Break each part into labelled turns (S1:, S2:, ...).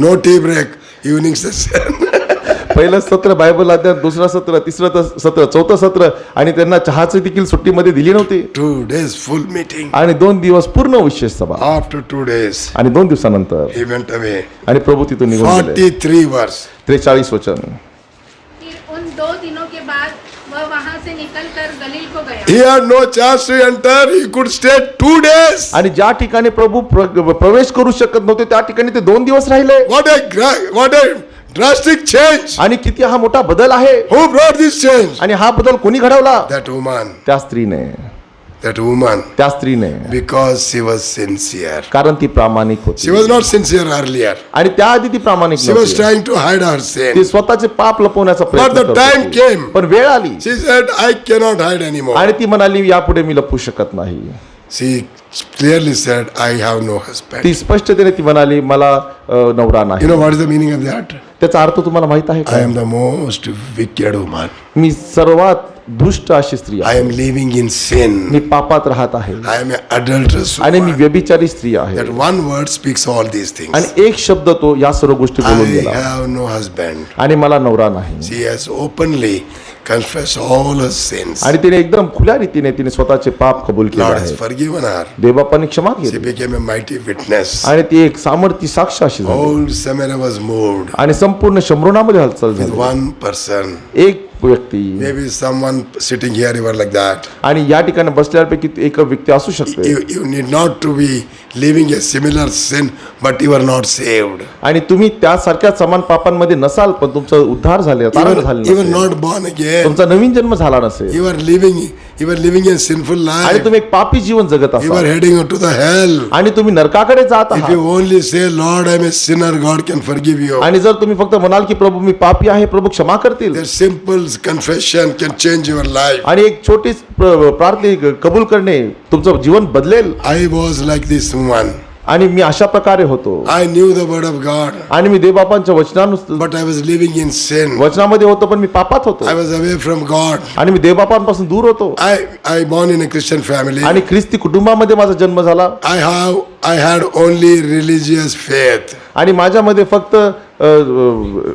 S1: No tea break evening session
S2: पहिलं सत्र Bible अध्ययन दुसरं सत्र तिसरं त- सत्र चौथं सत्र आणि त्यांना चहाची देखील सुट्टीमध्ये दिली नव्हती
S1: टू डेज फुल मीटिंग
S2: आणि दोन दिवस पूर्ण विशेष सभा
S1: आफ्टर टू डेज
S2: आणि दोन दिवसानंतर
S1: ही वेंट अवे
S2: आणि प्रभू तिथून निघून गेले
S1: फोर्टी थ्री वर्ष
S2: त्रेचाळीस वचन
S3: फिर उन दो दिनों के बाद वह वहाँ से निकलकर गलील को गया
S1: He had no chance to enter. He could stay two days.
S2: आणि ज्या ठिकाणी प्रभू प्र- प्रवेश करू शकत नव्हते त्या ठिकाणी ते दोन दिवस राहिले
S1: What a gra- what a drastic change.
S2: आणि किती हा मोठा बदल आहे
S1: Who brought this change?
S2: आणि हा बदल कोणी घडवला
S1: That woman.
S2: त्या स्त्रीने
S1: That woman.
S2: त्या स्त्रीने
S1: Because she was sincere.
S2: कारण ती प्रामाणिक
S1: She
S2: होती
S1: was not sincere earlier.
S2: आणि त्याआधी ती प्रामाणिक
S1: She was
S2: नव्हती
S1: trying to hide her
S2: ती
S1: sin.
S2: स्वतःचे पाप लपवण्याचा प्रयत्न
S1: But the
S2: करत
S1: time
S2: होती.
S1: came.
S2: पण वेळ आली
S1: She said, I cannot hide anymore.
S2: आणि ती म्हणाली यापुढे मी लपू शकत नाही
S1: She clearly said, I have no
S2: ती
S1: husband.
S2: स्पष्टतेने ती म्हणाली मला अ, नवरा
S1: You
S2: नाही
S1: know what is the meaning of that?
S2: त्याचा अर्थ तुम्हाला माहित आहे
S1: I
S2: का
S1: am the most wicked woman.
S2: मी सर्वात दुष्ट अशी स्त्री
S1: I
S2: आहे
S1: am living in sin.
S2: मी पापात राहत आहे
S1: I am an adulterous
S2: आणि मी
S1: woman.
S2: व्यभिचारी स्त्री आहे
S1: That one word speaks all these things.
S2: आणि एक शब्द तो या सर्व गोष्टी बोलून
S1: I
S2: गेला
S1: have no husband.
S2: आणि मला नवरा नाही
S1: She has openly confessed all her sins.
S2: आणि तिने एकदम खुल्या रीतीने तिने स्वतःचे पाप कबूल केले
S1: Lord has
S2: आहे
S1: forgiven her.
S2: देवबापाने क्षमा
S1: She
S2: केली
S1: became a mighty witness.
S2: आणि ती एक सामर्थ्य साक्ष अशी झाली
S1: Whole Samaria was moved
S2: आणि संपूर्ण शंभरणामध्ये हालचाल
S1: with
S2: झाली
S1: one person.
S2: एक व्यक्ती
S1: Maybe someone sitting here, you are like that.
S2: आणि या ठिकाणी बसल्यापैकी ती एक व्यक्ती असू शकते
S1: You, you need not to be living a similar sin, but you are not saved.
S2: आणि तुम्ही त्यासारख्या समान पापांमध्ये नसाल पण तुमचा उद्धार झाले
S1: You
S2: तारण
S1: are,
S2: झाले
S1: you are
S2: नसेल.
S1: not born again.
S2: तुमचा नवीन जन्म झाला नसेल
S1: You are living you are living a sinful
S2: आणि
S1: life.
S2: तुम्ही एक पापी जीवन जगत
S1: You are
S2: असाल
S1: heading to the hell.
S2: आणि तुम्ही नरकाकडे जात
S1: If
S2: आहात
S1: you only say, Lord, I'm a sinner, God can forgive you.
S2: आणि जर तुम्ही फक्त म्हणाल की प्रभू मी पापी आहे प्रभू क्षमा करतील
S1: That simple confession can change your life.
S2: आणि एक छोटी प्रार्थना कबूल करणे तुमचं जीवन बदलेल
S1: I was like this woman.
S2: आणि मी अशा प्रकारे होतो
S1: I knew the word of God,
S2: आणि मी देवबापांच्या वचनानुसार
S1: but I was living in sin.
S2: वचनामध्ये होतो पण मी पापात होतो
S1: I was away from God.
S2: आणि मी देवबापांपासून दूर होतो
S1: I I born in a Christian family.
S2: आणि ख्रिस्ती कुटुंबामध्ये माझा जन्म झाला
S1: I have I had only religious faith.
S2: आणि माझ्यामध्ये फक्त अ, अ,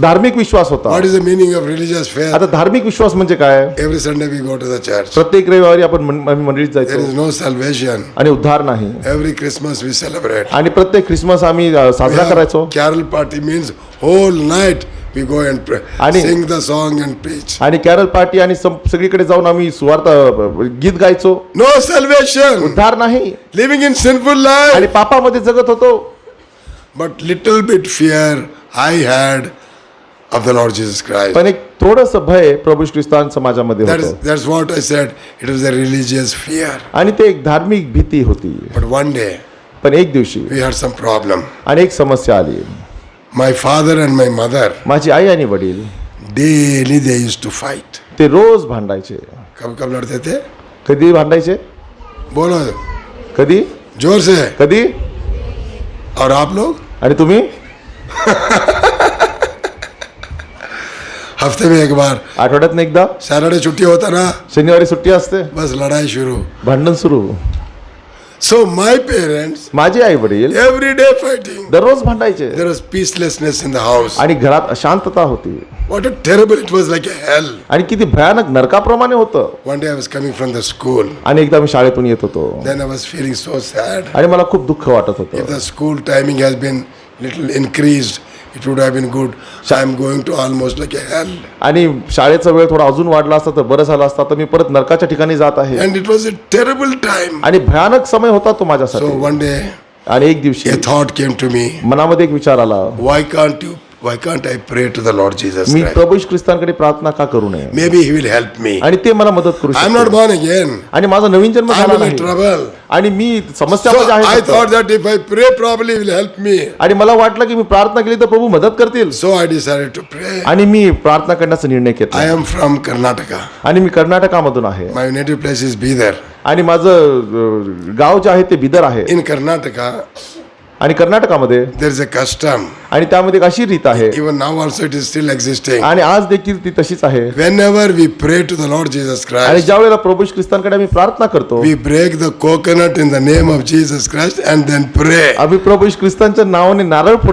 S2: धार्मिक विश्वास होता
S1: What is the meaning of religious faith?
S2: आता धार्मिक विश्वास म्हणजे काय
S1: Every Sunday we go to the church.
S2: प्रत्येक रविवारी आपण मं- आम्ही मंडळीत
S1: There
S2: जायचो
S1: is no salvation.
S2: आणि उद्धार नाही
S1: Every Christmas we celebrate.
S2: आणि प्रत्येक ख्रिसमस आम्ही अ,
S1: We
S2: साजरा
S1: have
S2: करायचो
S1: carol party means whole night we go and pray,
S2: आणि-
S1: sing the song and preach.
S2: आणि कॅरल पार्टी आणि सं- सगळीकडे जाऊन आम्ही सुवार्ता अ, अ, गीत गायचो
S1: No salvation.
S2: उद्धार नाही
S1: Living in sinful
S2: आणि
S1: life.
S2: पापामध्ये जगत होतो
S1: But little bit fear I had of the Lord Jesus Christ.
S2: पण एक थोडस भय प्रभू ख्रिस्तान समाजामध्ये
S1: That's
S2: होतं
S1: that's what I said. It was a religious fear.
S2: आणि ते एक धार्मिक भीती होती
S1: But one day
S2: पण एक दिवशी
S1: we had some problem.
S2: आणि एक समस्या आली
S1: My father and my mother
S2: माझी आई आणि वडील
S1: daily they used to fight.
S2: ते रोज भांडायचे
S1: कब कब लड़ते थे
S2: कधी भांडायचे
S1: बोलो
S2: कधी
S1: जोर से
S2: कधी
S1: और आप लोग
S2: आणि तुम्ही
S1: हफ्ते में एक बार
S2: आठवड्यातनं एकदा
S1: सैटरडे छुट्टी होता ना
S2: शनिवारी सुट्टी असते
S1: बस लड़ाई शुरू
S2: भांडण सुरू
S1: सो माय पेरेंट्स
S2: माझे आई वडील
S1: एवरी डे फाइटिंग
S2: दररोज भांडायचे
S1: there was peacelessness in the house
S2: आणि घरात अशांतता होती
S1: what a terrible it was like a hell
S2: आणि किती भयानक नरकाप्रमाणे होतं
S1: one day I was coming from the school
S2: आणि एकदा मी शाळेतून येत होतो
S1: then I was feeling so sad
S2: आणि मला खूप दुःख वाटत होतं
S1: If the school timing has been little increased, it would have been good. So I'm going to almost like a hell.
S2: आणि शाळेचा वेळ थोडा अजून वाढला असता तर बरं झालं असता तर मी परत नरकाच्या ठिकाणी जात आहे
S1: And it was a terrible time.
S2: आणि भयानक समय होता तो
S1: So
S2: माझ्यासाठी
S1: one day
S2: आणि एक दिवशी
S1: a thought came to me,
S2: मनामध्ये एक विचार आला
S1: why can't you why can't I pray to the Lord Jesus
S2: me
S1: Christ?
S2: प्रभू येशू ख्रिस्तांकडे प्रार्थना का करू नये
S1: Maybe he will help me.
S2: आणि ते मला मदत करू
S1: I'm not
S2: शकतो
S1: born again.
S2: आणि माझा नवीन जन्म झाला
S1: I'm in
S2: नाही
S1: trouble.
S2: आणि मी
S1: So
S2: समस्यामध्ये आहे
S1: I
S2: सध्या.
S1: thought that if I pray probably he will help me.
S2: आणि मला वाटलं की मी प्रार्थना केली तर प्रभू मदत करतील
S1: So I decided to pray.
S2: आणि मी प्रार्थना करण्याचा निर्णय
S1: I
S2: घेतला
S1: am from Karnataka.
S2: आणि मी कर्नाटकामधूn आहे
S1: My native place is Bidar.
S2: आणि माझं अं, गाव जे आहे ते बिदर आहे
S1: In Karnataka,
S2: आणि कर्नाटकामध्ये
S1: there is a custom.
S2: आणि त्यामध्ये एक अशी रीत आहे
S1: Even now also it is still existing.
S2: आणि आज देखील ती तशीच आहे
S1: Whenever we pray to the Lord Jesus
S2: आणि
S1: Christ,
S2: ज्या वेळेला प्रभू श्री ख्रिस्तांकडे आम्ही प्रार्थना करतो
S1: we break the coconut in the name of Jesus Christ and then pray.
S2: आम्ही प्रभू श्री ख्रिस्तांच्या नावाने नारळ